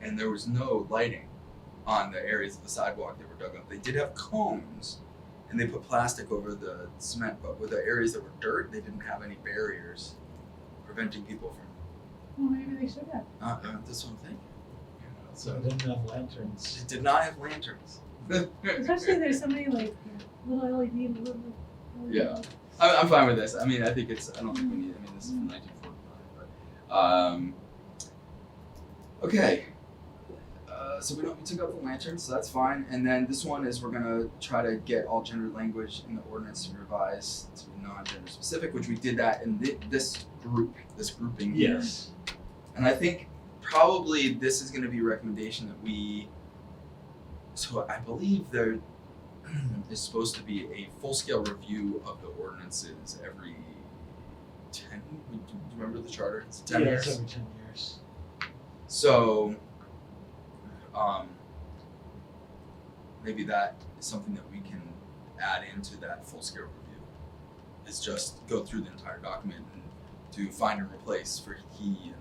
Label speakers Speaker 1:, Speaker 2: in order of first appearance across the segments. Speaker 1: and there was no lighting on the areas of the sidewalk that were dug up. They did have cones, and they put plastic over the cement, but with the areas that were dirt, they didn't have any barriers preventing people from.
Speaker 2: Well, maybe they should have.
Speaker 1: Uh, uh, that's what I'm thinking. You know,
Speaker 3: So
Speaker 1: so
Speaker 3: they didn't have lanterns.
Speaker 1: they did not have lanterns.
Speaker 2: Especially there's so many like little E LED, and little. little
Speaker 1: Yeah. I, I'm fine with this. I mean, I think it's. I don't think we need. I mean, this is from 1945, but um, okay. Uh, so we don't we took out the lantern, so that's fine. And then this one is we're gonna try to get all gender language in the ordinance to revise to be non-gender specific, which we did that in thi- this group, this grouping. here.
Speaker 3: Yes.
Speaker 1: And I think probably this is going to be a recommendation that we. So I believe there is supposed to be a full scale review of the ordinances every 10. Do you remember the charter? It's 10
Speaker 3: yeah,
Speaker 1: years.
Speaker 3: it's every ten years.
Speaker 1: So, um, maybe that is something that we can add into that full scale review. Is just go through the entire document and do find and replace for he and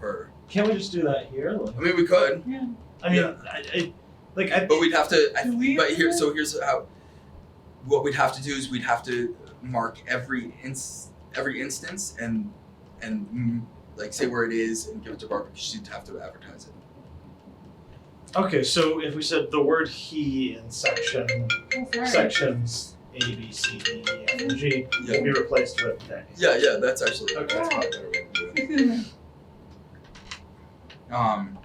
Speaker 1: her.
Speaker 3: Can't we just do that here? Like,
Speaker 1: I mean, we could,
Speaker 3: I mean,
Speaker 1: Yeah.
Speaker 3: I, I, like I.
Speaker 1: but we'd have to. I,
Speaker 2: Do we
Speaker 1: but
Speaker 2: have
Speaker 1: here,
Speaker 2: to-
Speaker 1: so here's how. What we'd have to do is we'd have to mark every ins every instance and and mm, like say where it is and give it to Barbara. 'cause She'd have to advertise it.
Speaker 3: Okay, so if we said the word he in section
Speaker 2: Oh, sorry.
Speaker 3: sections A B C D E F and G
Speaker 1: Yeah.
Speaker 3: will be replaced with they.
Speaker 1: Yeah, yeah, that's actually
Speaker 3: Okay.
Speaker 1: that's probably a better way to do it. Um,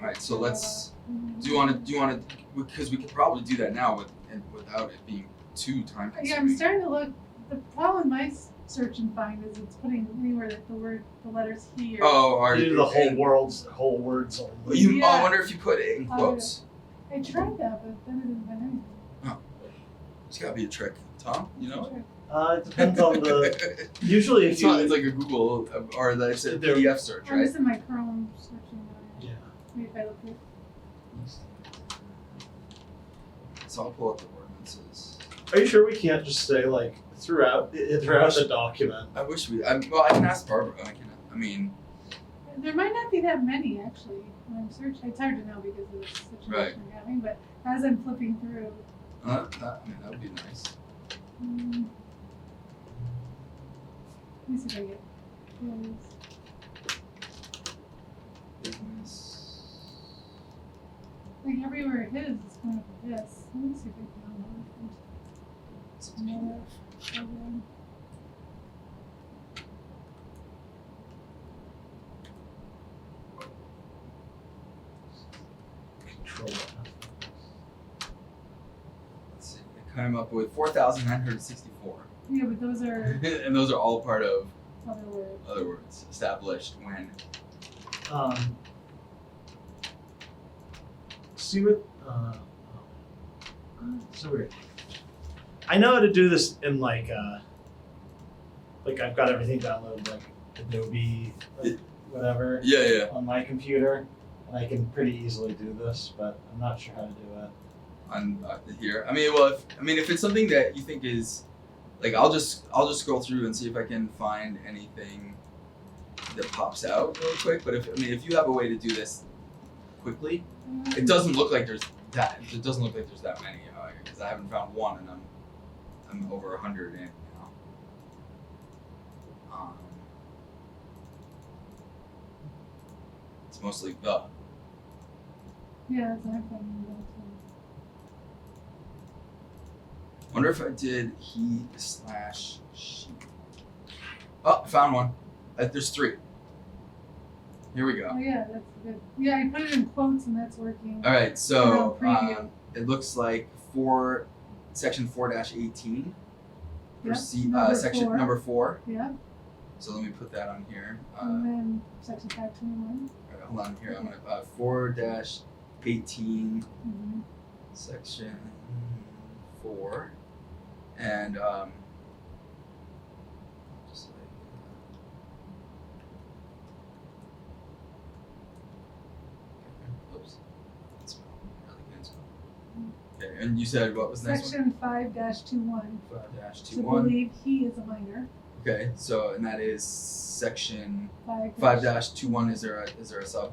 Speaker 1: all right, so let's.
Speaker 2: Mm-hmm.
Speaker 1: Do you want to? Do you want to? Because we could probably do that now with and without it being too time consuming.
Speaker 2: Yeah, I'm starting to look. The problem with my s- search and find is it's putting anywhere that the word, the letters he or
Speaker 1: Oh, are
Speaker 3: You do the whole
Speaker 1: and-
Speaker 3: world's whole words
Speaker 1: well,
Speaker 3: only.
Speaker 1: you, I
Speaker 2: Yeah. Oh,
Speaker 1: wonder if you put it in
Speaker 2: I would-
Speaker 1: quotes.
Speaker 2: I tried that, but then it didn't find anything.
Speaker 1: It's gotta be a trick, Tom. You know.
Speaker 3: Uh, it depends on the. Usually, if
Speaker 1: it's,
Speaker 3: you
Speaker 1: not, it's like a Google uh, or like it's a
Speaker 3: There-
Speaker 1: PDF search,
Speaker 2: I'm
Speaker 1: right?
Speaker 2: just in my Chrome searching. area.
Speaker 3: yeah.
Speaker 2: Maybe if I look here.
Speaker 1: So I'll pull up the ordinances.
Speaker 3: Are you sure we can't just say like throughout throughout the document?
Speaker 1: I wish we. I, well, I can ask Barbara. I can. I mean,
Speaker 2: There might not be that many actually when I'm searching. It's hard to know because of the situation
Speaker 1: Right.
Speaker 2: we're having, but as I'm flipping through,
Speaker 1: uh, that, I mean that would be nice.
Speaker 2: mm, let me see if I get. those. Like everywhere it is, it's kind of this. Let me see if I found one. Another program.
Speaker 3: Control.
Speaker 1: Let's see, I came up with 4,964.
Speaker 2: Yeah, but those are
Speaker 1: and those are all part of
Speaker 2: other words.
Speaker 1: other words established when.
Speaker 3: Um. See what? Uh, oh. so weird. I know how to do this in like uh. Like I've got everything downloaded like Adobe, like, whatever,
Speaker 1: Yeah, yeah.
Speaker 3: on my computer, and I can pretty easily do this, but I'm not sure how to do it.
Speaker 1: On uh, here, I mean, well, if, I mean, if it's something that you think is, like, I'll just I'll just scroll through and see if I can find anything that pops out real quick. But if I mean, if you have a way to do this quickly, it doesn't look like there's that. It doesn't look like there's that many because I haven't found one, and I'm I'm over a hundred in now. Um, it's mostly the.
Speaker 2: Yeah, that's what I'm finding those ones.
Speaker 1: Wonder if I did he slash she. Oh, I found one. Uh, there's three. Here we go.
Speaker 2: Oh yeah, that's good. Yeah, I put it in quotes and that's working.
Speaker 1: All right, Uh, so
Speaker 2: Oh, preview.
Speaker 1: um, it looks like four, section four dash eighteen.
Speaker 2: Yep,
Speaker 1: uh,
Speaker 2: number
Speaker 1: section
Speaker 2: four.
Speaker 1: number four.
Speaker 2: Yeah,
Speaker 1: So let me put that on here. Uh,
Speaker 2: and then section five twenty one.
Speaker 1: alright, hold on here. I'm gonna uh, four dash eighteen
Speaker 2: Mm-hmm.
Speaker 1: section four, and um, just like, uh, oops, that smell, really good smell. Okay, and you said what was the next
Speaker 2: Section five dash two one.
Speaker 1: one? Five dash
Speaker 2: To
Speaker 1: two one.
Speaker 2: believe he is a minor.
Speaker 1: Okay, so and that is section
Speaker 2: Five.
Speaker 1: five dash two one. Is there a is there a sub?